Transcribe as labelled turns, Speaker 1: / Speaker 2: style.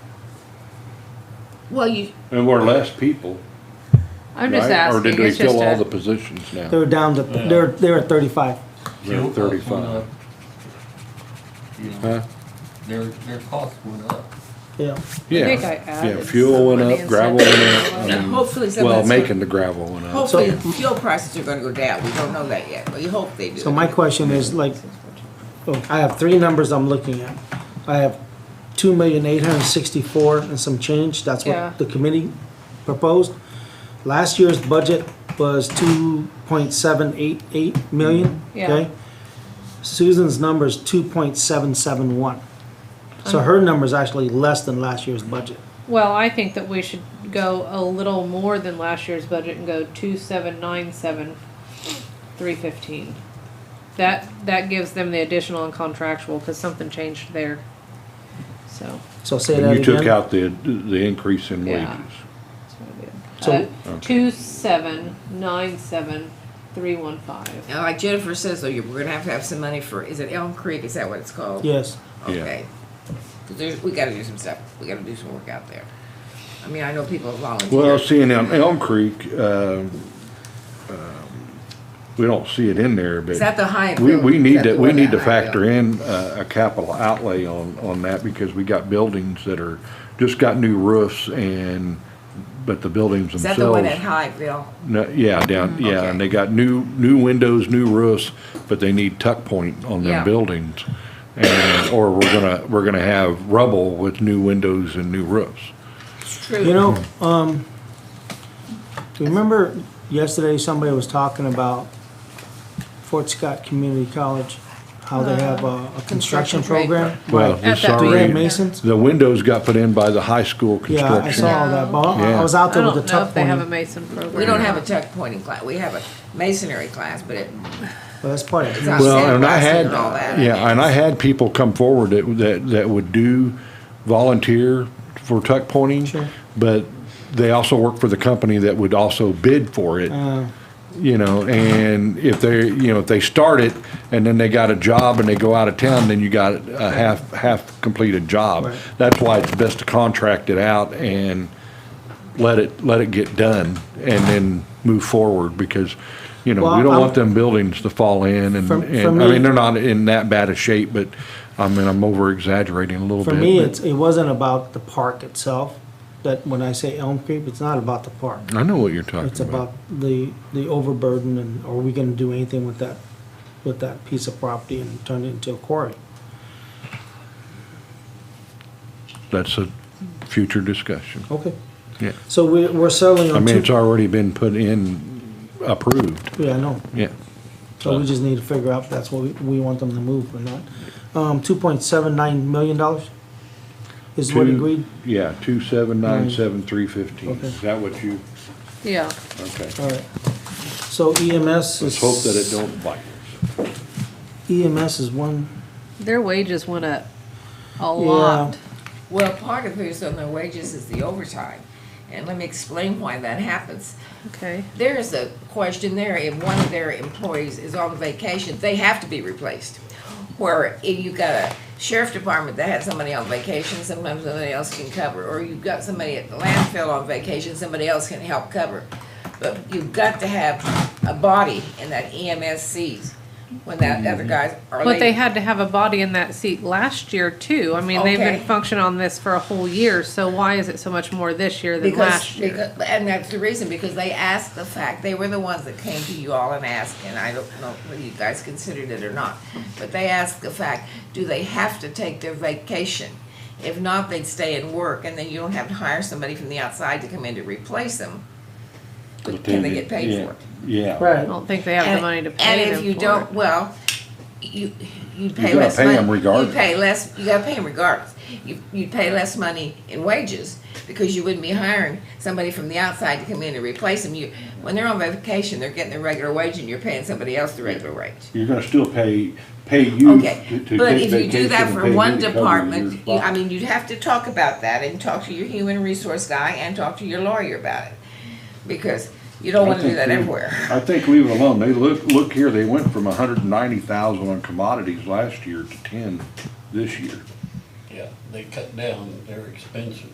Speaker 1: Well, you,
Speaker 2: And we're less people,
Speaker 3: I'm just
Speaker 2: right? Or
Speaker 3: asking.
Speaker 2: did we
Speaker 3: it's just
Speaker 2: fill
Speaker 3: a-
Speaker 2: all the positions now?
Speaker 4: They're down to, they're, they're at thirty-five.
Speaker 2: They're
Speaker 5: Fuel costs went
Speaker 2: Thirty-five.
Speaker 5: up, You know,
Speaker 2: Huh?
Speaker 5: their, their costs went up.
Speaker 4: Yeah.
Speaker 2: Yeah,
Speaker 3: think I
Speaker 2: yeah,
Speaker 3: added
Speaker 2: fuel went up,
Speaker 3: something
Speaker 2: gravel
Speaker 3: and
Speaker 2: went up.
Speaker 3: said-
Speaker 2: um,
Speaker 1: Hopefully some of
Speaker 2: Well,
Speaker 1: that's-
Speaker 2: making the gravel went up.
Speaker 1: hopefully
Speaker 4: So-
Speaker 1: fuel prices are gonna go down. We don't know that yet, but you hope they do.
Speaker 4: So my question is like, oh, I have three numbers I'm looking at. I have two million eight hundred sixty-four and some change, that's
Speaker 3: Yeah.
Speaker 4: what the committee proposed. Last year's budget was two point seven eight eight million,
Speaker 3: Yeah.
Speaker 4: okay? Susan's number's two point seven seven one. So her number's actually less than last year's budget.
Speaker 3: Well, I think that we should go a little more than last year's budget and go two seven nine seven three fifteen. That, that gives them the additional and contractual, cause something changed there. So,
Speaker 4: So say that
Speaker 2: And you
Speaker 4: again.
Speaker 2: took out the, the increase in
Speaker 3: Yeah.
Speaker 2: wages.
Speaker 3: that's what
Speaker 4: So-
Speaker 3: I did. Uh, two seven nine seven three one five.
Speaker 1: Now, like Jennifer says, though, you- we're gonna have to have some money for, is it Elm Creek? Is that what it's called?
Speaker 4: Yes,
Speaker 2: Yeah.
Speaker 1: Okay. 'Cause there's, we gotta do some stuff. We gotta do some work out there. I mean, I know people
Speaker 2: Well,
Speaker 1: volunteer.
Speaker 2: seeing Elm, Elm Creek, um, um, we don't see it in there, but.
Speaker 1: Is that the high?
Speaker 2: We, we
Speaker 1: is
Speaker 2: need
Speaker 1: that
Speaker 2: to,
Speaker 1: the
Speaker 2: we
Speaker 1: one
Speaker 2: need to
Speaker 1: that high
Speaker 2: factor in uh, a capital outlay on, on that because we got buildings that are, just got new roofs and, but the buildings
Speaker 1: Is that the one
Speaker 2: themselves.
Speaker 1: at Hyattville?
Speaker 2: No, yeah, down, yeah,
Speaker 1: Okay.
Speaker 2: and they got new, new windows, new roofs, but they need tuck point on
Speaker 3: Yeah.
Speaker 2: their buildings. And, or we're gonna, we're gonna have rubble with new windows and new roofs.
Speaker 1: It's true.
Speaker 4: you know, um, do you remember yesterday somebody was talking about Fort Scott Community College? How they have a, a
Speaker 3: Uh,
Speaker 4: construction
Speaker 3: construction trade.
Speaker 4: program?
Speaker 2: Well,
Speaker 4: Right.
Speaker 2: the
Speaker 3: At that
Speaker 4: Do you have
Speaker 2: sorry,
Speaker 4: masons?
Speaker 2: the windows got put in by the high school
Speaker 4: Yeah, I saw
Speaker 2: construction.
Speaker 4: all that, but I- I
Speaker 2: Yeah.
Speaker 4: was out
Speaker 3: I
Speaker 4: there with the
Speaker 3: don't know
Speaker 4: tuck
Speaker 3: if they have a
Speaker 4: pointing.
Speaker 3: Mason program.
Speaker 1: We don't have a tuck pointing class. We have a masonry class, but it,
Speaker 4: Well, that's part of
Speaker 1: it's
Speaker 4: it.
Speaker 1: not
Speaker 2: Well, and I
Speaker 1: sandblasting
Speaker 2: had,
Speaker 1: and all that.
Speaker 2: yeah, and I had people come forward that, that, that would do volunteer for tuck pointing.
Speaker 4: Sure.
Speaker 2: But they also work for the company that would also bid for it.
Speaker 4: Uh,
Speaker 2: you know, and if they, you know, if they start it and then they got a job and they go out of town, then you got a half, half completed job.
Speaker 4: Right.
Speaker 2: That's why it's best to contract it out and let it, let it get done and then move forward because, you know, we
Speaker 4: Well,
Speaker 2: don't
Speaker 4: I'm-
Speaker 2: want them buildings to fall in and,
Speaker 4: For- for
Speaker 2: and, I
Speaker 4: me-
Speaker 2: mean, they're not in that bad a shape, but I mean, I'm over exaggerating a little bit.
Speaker 4: For me,
Speaker 2: but-
Speaker 4: it's, it wasn't about the park itself, that when I say Elm Creek, it's not about the park.
Speaker 2: I know what you're talking
Speaker 4: It's about
Speaker 2: about.
Speaker 4: the, the overburden and are we gonna do anything with that, with that piece of property and turn it into a quarry?
Speaker 2: That's a future discussion.
Speaker 4: Okay.
Speaker 2: Yeah.
Speaker 4: So we, we're settling
Speaker 2: I
Speaker 4: on
Speaker 2: mean, it's
Speaker 4: two,
Speaker 2: already been put in, approved,
Speaker 4: yeah, I know,
Speaker 2: yeah.
Speaker 4: so we just need to figure out if that's what we, we want them to move or not. Um, two point seven nine million dollars is what
Speaker 2: Two-
Speaker 4: agreed,
Speaker 2: Yeah, two seven nine
Speaker 4: Nine.
Speaker 2: seven three fifteen.
Speaker 4: Okay.
Speaker 2: Is that what you,
Speaker 3: Yeah,
Speaker 2: okay.
Speaker 4: alright. So EMS
Speaker 2: Let's
Speaker 4: is.
Speaker 2: hope that it don't bite us.
Speaker 4: EMS is one,
Speaker 3: their wages went up a
Speaker 4: Yeah.
Speaker 3: lot.
Speaker 1: Well, part of who's on their wages is the overtime. And let me explain why that happens.
Speaker 3: Okay,
Speaker 1: There is a question there, if one of their employees is on vacation, they have to be replaced. Where if you've got a sheriff department that has somebody on vacation, sometimes somebody else can cover. Or you've got somebody at the landfill on vacation, somebody else can help cover. But you've got to have a body in that E EMS sees when that other guys are
Speaker 3: but they
Speaker 1: leaving.
Speaker 3: had to have a body in that seat last year too. I mean, they've
Speaker 1: Okay.
Speaker 3: been functioning on this for a whole year, so why is it so much more this year than
Speaker 1: Because,
Speaker 3: last year?
Speaker 1: because, and that's the reason, because they asked the fact, they were the ones that came to you all and asked, and I don't know whether you guys considered it or not, but they asked the fact, do they have to take their vacation? If not, they'd stay and work, and then you don't have to hire somebody from the outside to come in to replace them. But can they get paid for it?
Speaker 2: Yeah.
Speaker 3: I
Speaker 4: right,
Speaker 3: don't think they have the
Speaker 1: And-
Speaker 3: money to pay
Speaker 1: And if
Speaker 3: them
Speaker 1: you
Speaker 3: for
Speaker 1: don't,
Speaker 3: it.
Speaker 1: well, you, you pay
Speaker 2: gotta
Speaker 1: less
Speaker 2: pay
Speaker 1: money.
Speaker 2: 'em regardless.
Speaker 1: You pay less, you gotta pay them regardless. You, you pay less money in wages because you wouldn't be hiring somebody from the outside to come in and replace them. You, when they're on vacation, they're getting their regular wage and you're paying somebody else the regular wage.
Speaker 2: You're gonna still pay, pay you
Speaker 1: Okay, but if you do that for one department, you, I mean, you'd have to talk about that and talk to your human resource guy and talk to your lawyer about it. Because you don't wanna do that everywhere.
Speaker 2: I think leave it alone. They look, look here, they went from a hundred and ninety thousand on commodities last year to ten this year.
Speaker 5: Yeah, they cut down their expenses.